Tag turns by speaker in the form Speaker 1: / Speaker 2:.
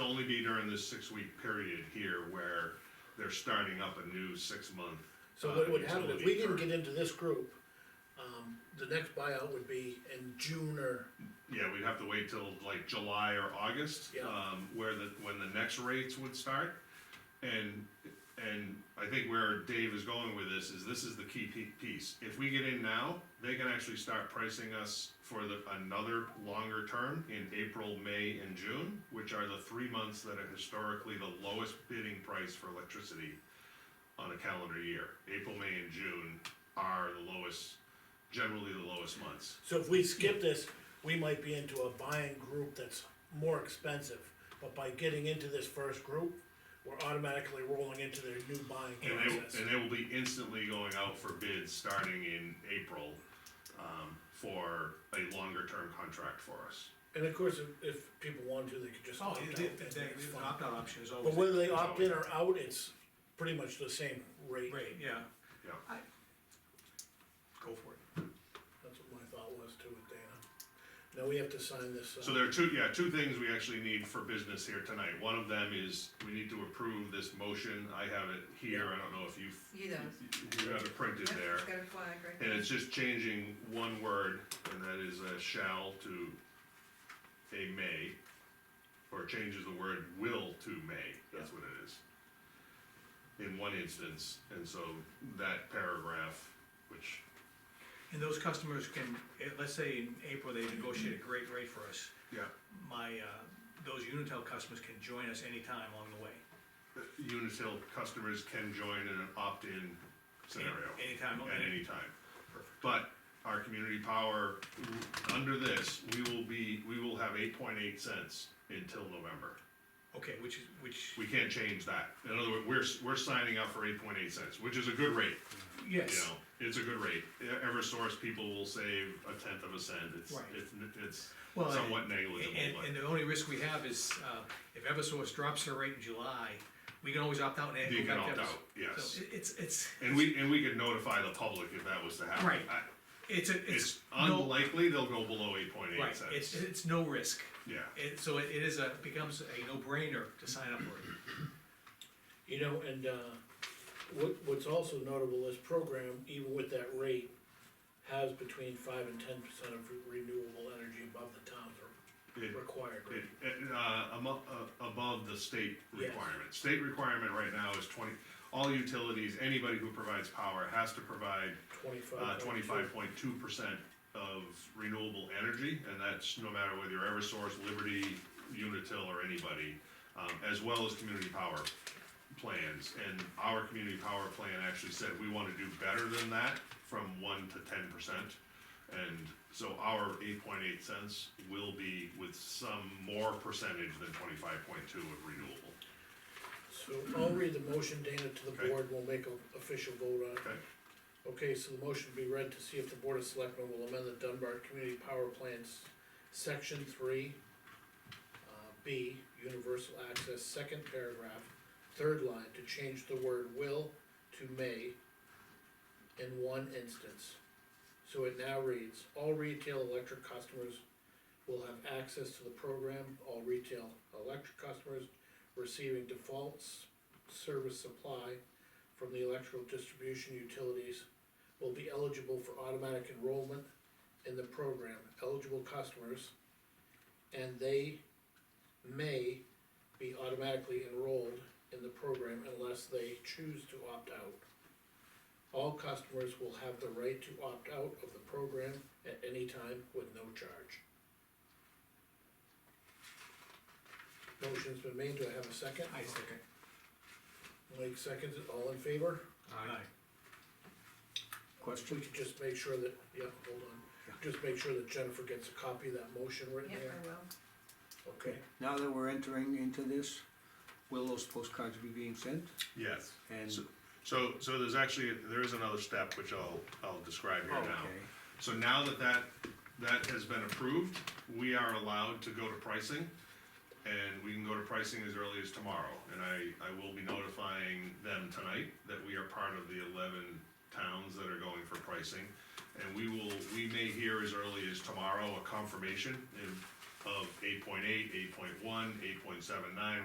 Speaker 1: be during this six-week period here where they're starting up a new six-month.
Speaker 2: So
Speaker 1: uh,
Speaker 2: what would happen, if
Speaker 1: utility
Speaker 2: we didn't
Speaker 1: for-
Speaker 2: get into this group, um, the next buyout would be in June or,
Speaker 1: Yeah, we'd have to wait till like July or August,
Speaker 2: Yeah.
Speaker 1: um, where the, when the next rates would start. And, and I think where Dave is going with this is this is the key pe- piece. If we get in now, they can actually start pricing us for the, another longer term in April, May, and June, which are the three months that are historically the lowest bidding price for electricity on a calendar year. April, May, and June are the lowest, generally the lowest months.
Speaker 2: so if we skip this, we might be into a buying group that's more expensive. But by getting into this first group, we're automatically rolling into their new buying
Speaker 1: And they,
Speaker 2: process.
Speaker 1: and they will be instantly going out for bids starting in April, um, for a longer term contract for us.
Speaker 2: And of course, if, if people wanted to, they could just
Speaker 3: Oh,
Speaker 2: opt out.
Speaker 3: the,
Speaker 2: That's
Speaker 3: the, the
Speaker 2: fine.
Speaker 3: opt-out option is
Speaker 2: But
Speaker 3: always.
Speaker 2: whether they opt in or out, it's pretty much the same rate,
Speaker 3: Right, yeah.
Speaker 1: Yeah.
Speaker 3: I- Go for it.
Speaker 2: that's what my thought was too with Dana. Now we have to sign this,
Speaker 1: So
Speaker 2: uh,
Speaker 1: there are two, yeah, two things we actually need for business here tonight. One of them is we need to approve this motion. I have it here. I don't know if you've,
Speaker 4: He does.
Speaker 1: you have it printed
Speaker 4: Yep,
Speaker 1: there.
Speaker 4: It's got a flag right
Speaker 1: And
Speaker 4: there.
Speaker 1: it's just changing one word, and that is uh, shall to a may, or changes the word will to may, that's what it is. In one instance, and so that paragraph, which,
Speaker 3: And those customers can, eh, let's say in April, they negotiate a great rate for us.
Speaker 1: yeah,
Speaker 3: My, uh, those Unitel customers can join us anytime along the way.
Speaker 1: Unitil customers can join in an opt-in scenario.
Speaker 3: Anytime,
Speaker 1: At
Speaker 3: any-
Speaker 1: any time.
Speaker 3: Perfect.
Speaker 1: But our community power, under this, we will be, we will have eight point eight cents until November.
Speaker 3: Okay, which is, which,
Speaker 1: We can't change that. In other words, we're, we're signing up for eight point eight cents, which is a good rate, you
Speaker 3: yes,
Speaker 1: know, it's a good rate. E- Eversource people will save a tenth of a cent, it's,
Speaker 3: Right.
Speaker 1: it's, n- it's
Speaker 3: Well, and-
Speaker 1: somewhat
Speaker 3: and,
Speaker 1: negligible,
Speaker 3: and
Speaker 1: but.
Speaker 3: the only risk we have is, uh, if Eversource drops their rate in July, we can always opt out and.
Speaker 1: You
Speaker 3: go back
Speaker 1: can
Speaker 3: to
Speaker 1: opt
Speaker 3: Eversource.
Speaker 1: out, yes.
Speaker 3: So it- It's, it's,
Speaker 1: And we, and we could notify the public if that was to happen.
Speaker 3: Right.
Speaker 1: I-
Speaker 3: it's, a-
Speaker 1: It's
Speaker 3: it's. no-
Speaker 1: unlikely they'll go below eight point eight
Speaker 3: Right, it's,
Speaker 1: cents.
Speaker 3: it's no risk.
Speaker 1: Yeah,
Speaker 3: It, so it it is a, becomes a no-brainer to sign up for it.
Speaker 2: you know, and, uh, what, what's also notable, this program, even with that rate, has between five and ten percent of renewable energy above the town's re-
Speaker 1: it,
Speaker 2: required
Speaker 1: it,
Speaker 2: rate.
Speaker 1: it, uh, amo- uh, above the state
Speaker 2: Yes.
Speaker 1: requirement. State requirement right now is twenty, all utilities, anybody who provides power has to provide uh,
Speaker 2: Twenty-five.
Speaker 1: twenty-five point two percent of renewable energy, and that's no matter whether you're Eversource, Liberty, Unitil, or anybody, um, as well as community power plans. And our community power plan actually said we wanna do better than that, from one to ten percent. And so our eight point eight cents will be with some more percentage than twenty-five point two of renewable.
Speaker 2: So I'll read the motion, Dana, to the
Speaker 1: Okay.
Speaker 2: board, we'll make an official vote on it.
Speaker 1: Okay.
Speaker 2: Okay, so the motion will be read to see if the Board of Selectmen will amend the Dunbar Community Power Plant's Section three, uh, B, universal access, second paragraph, third line, to change the word will to may in one instance. So it now reads, all retail electric customers will have access to the program, all retail electric customers receiving defaults service supply from the electrical distribution utilities will be eligible for automatic enrollment in the program, eligible customers, and they may be automatically enrolled in the program unless they choose to opt out. All customers will have the right to opt out of the program at any time with no charge. Motion's been made, do I have a second?
Speaker 3: I second.
Speaker 2: Mike seconds it, all in favor?
Speaker 3: Aye.
Speaker 2: We can just make sure that, yeah, hold on, just make sure that Jennifer gets a copy of that motion written
Speaker 4: Yep,
Speaker 2: there,
Speaker 4: I will.
Speaker 2: okay?
Speaker 5: Now that we're entering into this, will those postcards be being sent?
Speaker 1: Yes.
Speaker 5: And,
Speaker 1: So- So, so there's actually, there is another step which I'll, I'll describe here now.
Speaker 5: oh, Okay.
Speaker 1: So now that that, that has been approved, we are allowed to go to pricing. And we can go to pricing as early as tomorrow, and I, I will be notifying them tonight that we are part of the eleven towns that are going for pricing. And we will, we may hear as early as tomorrow a confirmation in, of 8.8, 8.1, 8.79,